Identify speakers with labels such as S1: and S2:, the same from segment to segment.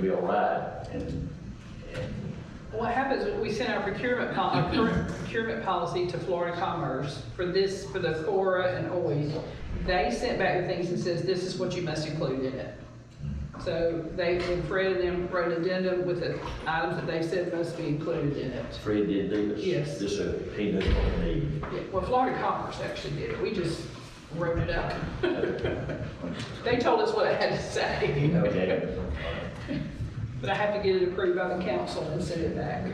S1: be all right. And
S2: What happens, is we sent our procurement, pol- our current procurement policy to Florida Commerce for this, for the Cora and OIS. They sent back the things that says, this is what you must include in it. So they, and Fred and them wrote an addendum with the items that they said must be included in it.
S1: Fred did do this?
S2: Yes.
S1: This, uh, he knows what we need.
S2: Yeah, Well, Florida Commerce actually did it, we just wrote it up. They told us what I had to say.
S1: Okay.
S2: But I have to get it approved by the council and send it back.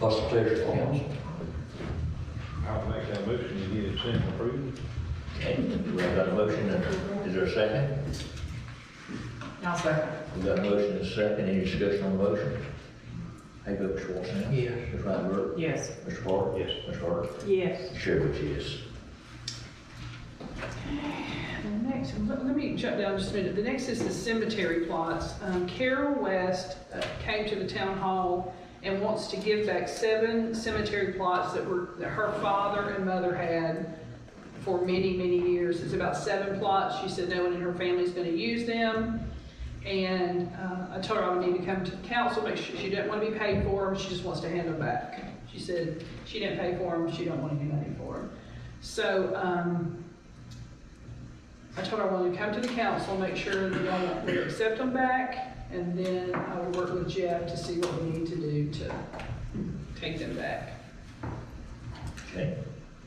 S3: What's the pleasure of the council?
S4: I would make that motion to get it sent and approved.
S1: Okay, we have got a motion, and is there a second?
S5: I'll second.
S1: We've got a motion and a second, any discussion on the motion? How you vote, Mr. Wilson?
S3: Yes.
S1: Ms. Rainbird?
S5: Yes.
S1: Mr. Parker?
S4: Yes.
S1: Ms. Hart?
S5: Yes.
S1: Chair votes yes.
S2: The next, let let me jump down just a minute. The next is the cemetery plots. Um, Carol West uh, came to the town hall and wants to give back seven cemetery plots that were, that her father and mother had for many, many years. It's about seven plots. She said no one in her family's gonna use them. And, uh, I told her I would need to come to the council, but she, she didn't wanna be paid for them. She just wants to hand them back. She said she didn't pay for them. She don't want any money for them. So, um, I told her I wanted to come to the council, make sure that y'all would accept them back, and then I would work with Jeff to see what we need to do to take them back.
S1: Okay.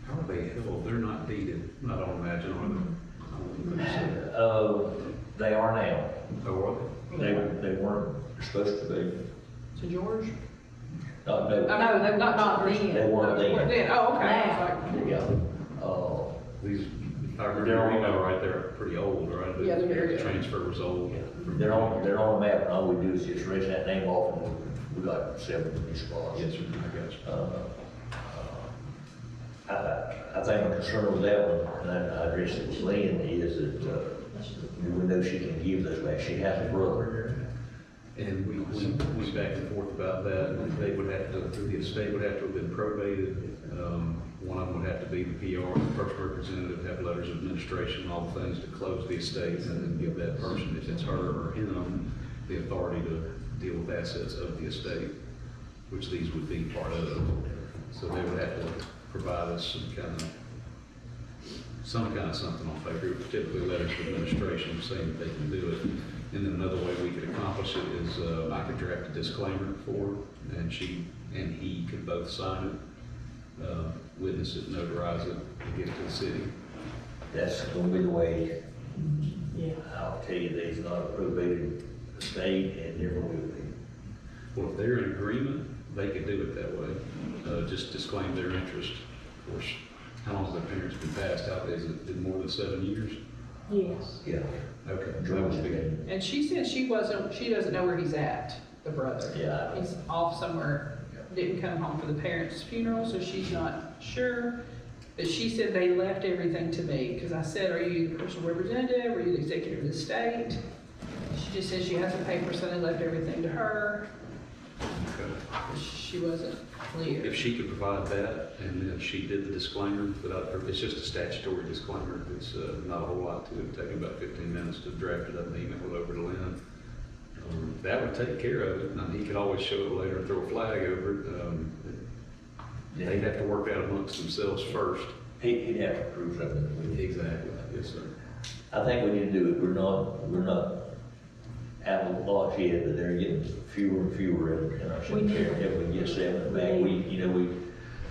S6: How are they held? They're not deeded, I don't imagine, are they? I wouldn't think
S1: Uh, they are now.
S6: so. Oh, are they?
S1: They, they weren't supposed to be.
S2: To George?
S1: Not, they,
S2: Oh,
S5: No, they were not
S2: George.
S5: then.
S1: they weren't
S2: Well,
S1: then.
S2: Then, oh, okay.
S5: Now.
S2: I was
S1: Yeah. Uh,
S6: These, if I remember
S1: They're
S6: your
S1: on-
S6: email right, they're pretty old, right? The-
S2: Yeah, they're very
S6: The
S2: old.
S6: transfer was old.
S1: they're on, they're on the map, and all we do is just erase that name off, and we got seven new spots.
S6: Yes, sir, I got you.
S1: Uh, I, I I think I'm concerned with that one, and I I addressed it with Lynn, is that, uh, we know she can give those back, she has a brother.
S6: And we, we went back and forth about that, and they would have to, the estate would have to have been probated. Um, One of them would have to be the PR, the first representative, have letters of administration, all the things to close the estate, and then give that person, if it's her or him, the authority to deal with assets of the estate, which these would be part of. So they would have to provide us some kind of, some kind of something on paper, typically letters of administration saying that they can do it. And then another way we could accomplish it is uh, I could draft a disclaimer for her, and she and he could both sign it, uh, witness it, notarize it, and give it to the city.
S1: That's gonna be the way,
S5: Yeah.
S1: I'll tell you, there's not a probated estate, and never will be.
S6: Well, if they're in agreement, they could do it that way. Uh, Just disclaim their interest. Of course, how long has their parents been passed out? Is it been more than seven years?
S5: Yes.
S1: Yeah.
S6: Okay. that
S1: George
S6: would be-
S1: did.
S2: like- And she said she wasn't, she doesn't know where he's at, the brother.
S1: Yeah.
S2: He's off somewhere, didn't come home for the parents' funeral, so she's not sure. But she said they left everything to me, because I said, are you the personal representative, are you the executive of the state? She just said she hasn't paid for something, left everything to her,
S6: Okay.
S2: she wasn't
S6: If
S2: clear.
S6: she could provide that, and then she did the disclaimer without, it's just a statutory disclaimer, it's uh, not a whole lot to it, taking about fifteen minutes to draft it up and email it over to Lynn. Um, That would take care of it, and he could always show it later and throw a flag over it. Um, They'd have to work that amongst themselves first.
S1: He, he'd have to prove something that we did.
S6: Exactly. Yes, sir.
S1: I think we need to do it, we're not, we're not out of the box yet, but they're getting fewer and fewer in- in our
S5: We need-
S1: cemetery. If we get seven back, we, you know, we,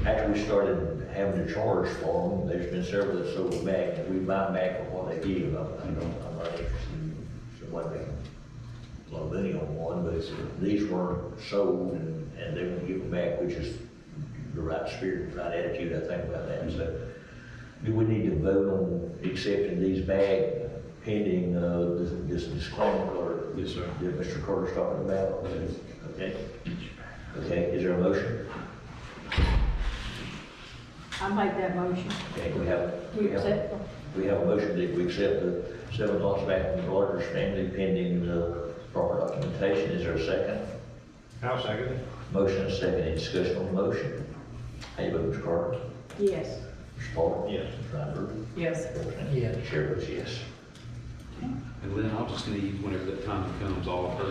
S1: after we started having to charge for them, there's been several that's sold back, and we buy back for what they give, I'm, I don't, I'm not interested in what they, a lot of money on one, but it's, these weren't sold, and, and they won't give them back, which is the right spirit, the right attitude, I think about that, so. Do we need to vote on accepting these back pending, uh, this, this disclaimer or
S6: Yes, sir.
S1: that Mr. Carter's talking about, okay? Okay, is there a motion?
S5: I make that motion.
S1: Okay, we have, we
S5: We
S1: have,
S5: accept them.
S1: we have a motion that we accept the seven lots back from the Rogers family pending the proper documentation, is there a second?
S4: I'll second it.
S1: Motion and second, any discussion on the motion? How you vote, Mr. Carter?
S5: Yes.
S1: Mr. Paul?
S4: Yes.
S1: Mr. Fryberg?
S5: Yes.
S3: Yeah.
S1: Chair votes yes.
S6: And Lynn, I'll just need, whenever that time comes, all of her